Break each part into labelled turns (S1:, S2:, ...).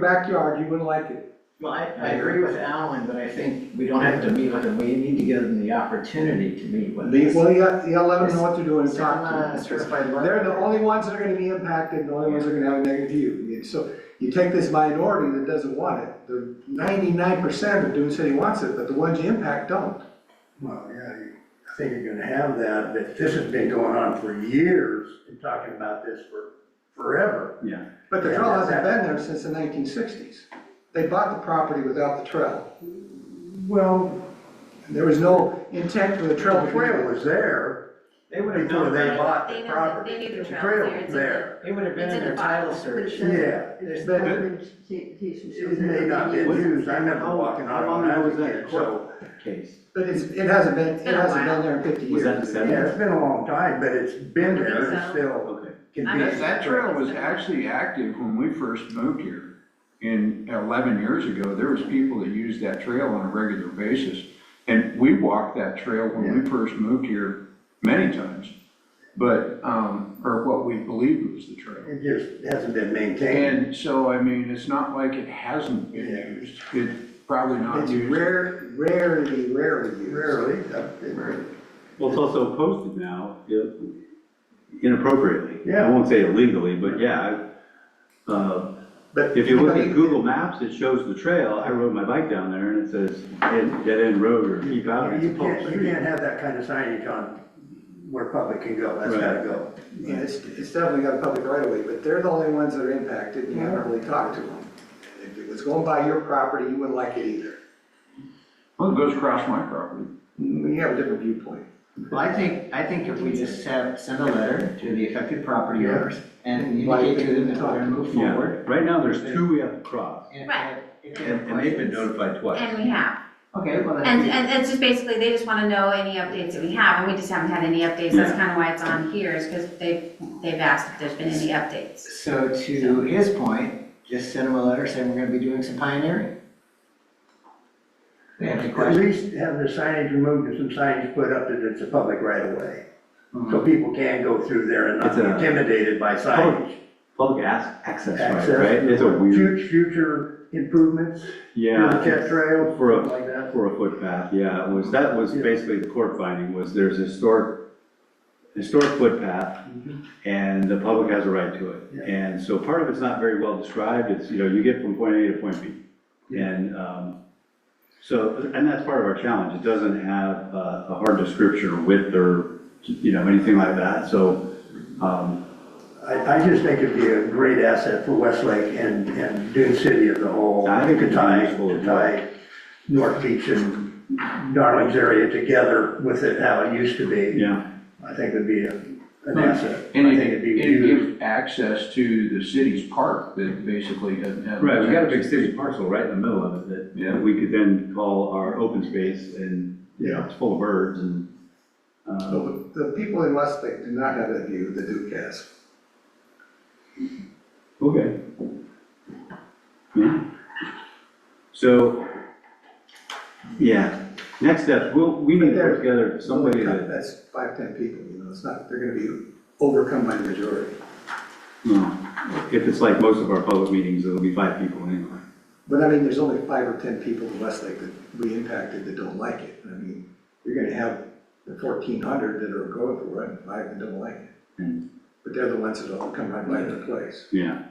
S1: backyard, you wouldn't like it.
S2: Well, I, I agree with Alan, but I think we don't have to meet with them, we need to give them the opportunity to meet with
S1: Well,
S2: us.
S1: you got, you gotta let them know what to do and talk to
S2: Sound, uh,
S1: them.
S2: certified letter.
S1: They're the only ones that are gonna be impacted, the only ones that are gonna have a negative view. You- So you take this minority that doesn't want it, the ninety-nine percent of Dune City wants it, but the ones you impact don't.
S3: Well, yeah, you- I think you're gonna have that, but this has been going on for years, and talking about this for forever.
S4: Yeah,
S1: But the
S3: Yeah,
S1: trail hasn't
S3: that-
S1: been there since the nineteen sixties. They bought the property without the trail.
S3: Well,
S1: There was no intent for the trail
S3: the
S1: to be
S3: trail was there
S2: They would have
S3: before
S2: known
S3: they
S2: about
S3: bought
S5: They
S3: the
S5: know that-
S3: property.
S5: they knew the trail was there,
S3: trail
S5: it's
S3: was
S5: in the-
S3: there,
S2: it, it would have been
S5: It's
S2: in
S5: in
S2: their
S5: the file.
S2: title search.
S3: yeah.
S2: There's
S1: been-
S3: It may not been used, I remember walking
S4: How
S3: on
S4: long
S3: it when I
S4: ago
S3: was
S4: was
S3: a
S4: that
S3: kid, so,
S4: case.
S1: But it's, it hasn't been, it
S5: been a
S1: hasn't
S5: while.
S1: been there in fifty years.
S4: Was that the seven?
S3: yeah, it's been a long time, but it's been there, it's
S5: So-
S3: still
S4: Okay.
S5: I'm-
S3: convenient.
S6: That, that trail was actually active when we first moved here. And eleven years ago, there was people that used that trail on a regular basis. And we walked that trail when we first moved here many times. But, um, or what we believed was the trail.
S3: It just hasn't been maintained.
S6: And so, I mean, it's not like it hasn't been
S3: Yeah.
S6: used. It's probably not
S1: It's
S6: used.
S1: rare, rarely, rarely used.
S3: Rarely, I've been-
S4: Well, it's also posted now i- inappropriately.
S3: Yeah.
S4: I won't say illegally, but yeah. I- uh,
S1: But
S4: If you look at
S1: anybody-
S4: Google Maps, it shows the trail. I rode my bike down there and it says, "Dead- dead end road or keep out. It's a
S3: You
S4: public
S3: can't, you
S4: street.
S3: can't have that kind of signage on where public can go, that's gotta
S4: Right.
S3: go.
S1: Yeah, it's, it's definitely got a public right of way, but they're the only ones that are impacted, and you haven't really talked to them. If it was going by your property, you wouldn't like it either.
S6: Well, it goes across my property.
S1: We have a different viewpoint.
S2: Well, I think, I think if we just have, send a letter to the affected property owners and
S1: Invite
S2: indicate to them that we're gonna move
S4: Yeah,
S2: forward.
S4: right now there's two we have to cross.
S2: and- uh,
S5: Right.
S2: if they have
S4: And, and they've been
S2: questions.
S4: notified twice.
S5: And we have.
S2: Okay, well,
S5: And,
S2: then,
S5: and it's just basically, they just want to know any updates that we have, and we just haven't had any updates. That's kind of why it's on here, is because they've, they've asked if there's been any updates.
S2: so to his point, just send them a letter saying we're gonna be doing some pioneering. They have any
S3: At
S2: questions?
S3: least have the signage removed and some signage put up that it's a public right of way. So people can go through there and not
S4: Mm-hmm. It's
S3: be
S4: a-
S3: intimidated by signage.
S4: Public ac- access right,
S3: Access.
S4: right? It's a weird,
S3: Fu- Future improvements,
S4: yeah.
S3: future trails,
S4: For a-
S3: something like that.
S4: For a footpath, yeah, it was, that was
S3: Yeah.
S4: basically the court finding, was there's a historic, historic footpath, and the public has a right to
S3: Mm-hmm. Yeah.
S4: it. And so part of it's not very well described, it's, you know, you get from point A to point B.
S3: Yeah.
S4: And, um, so, and that's part of our challenge, it doesn't have uh, a hard description or width or, you know, anything like that, so, um,
S3: I, I just think it'd be a great asset for Westlake and, and Dune City as a whole.
S4: I think
S3: To
S4: it'd be
S3: tie,
S4: useful
S3: to
S4: as
S3: tie North Beach and Darlings area together with it, how it used to be.
S4: yeah.
S3: I think it'd be a- an asset. I
S6: And
S3: think
S6: it,
S3: it'd be
S6: it
S3: used.
S6: gives access to the city's park that basically doesn't have.
S4: Right, we got a big city parcel right in the middle of it
S6: Yeah.
S4: that we could then call our open space, and, you know, it's full of birds and, uh,
S1: The the people in Westlake do not have that view, the Duke has.
S4: Okay. Yeah. So, yeah, next step, we'll, we need to put together somebody that,
S1: That's five, ten people, you know, it's not, they're gonna be overcome by the majority.
S4: you know, if it's like most of our public meetings, it'll be five people anyway.
S1: But I mean, there's only five or ten people in Westlake that we impacted that don't like it. I mean, you're gonna have the fourteen hundred that are going for it, and five that don't like it.
S4: Mm.
S1: But they're the ones that all come right by the place.
S4: Yeah,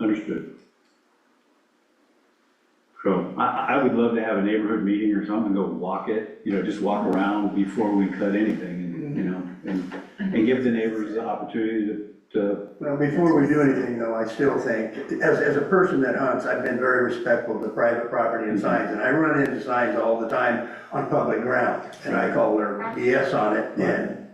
S4: understood. So I, I would love to have a neighborhood meeting or something, go walk it, you know, just walk around before we cut anything and, you know, and, and give the neighbors the opportunity to, to,
S3: Well, before we do anything though, I still think, as, as a person that hunts, I've been very respectful to private property
S4: Mm-hmm.
S3: and signs. And I run into signs all the time on public ground and I call their BS on it and,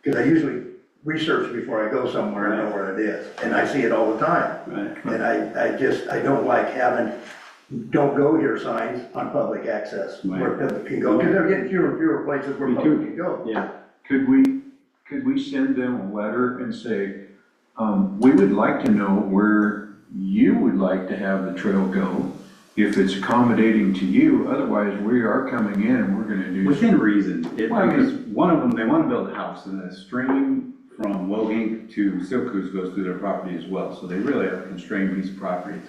S3: because I usually research before I go somewhere and know where it is. And I see it all the time.
S4: right?
S3: And I, I just, I don't like having, don't go here signs on public access where
S4: Right.
S3: people can go. Because they're getting fewer and fewer places where
S4: Me
S3: people
S4: too.
S3: can go.
S4: Yeah,
S6: Could we, could we send them a letter and say, um, we would like to know where you would like to have the trail go? If it's accommodating to you, otherwise we are coming in and we're gonna do.
S4: Within reason, it,
S6: Well, I mean-
S4: because one of them, they want to build a house, and the stream from Wogink to Silkus goes through their property as well, so they really have a constrained piece of property.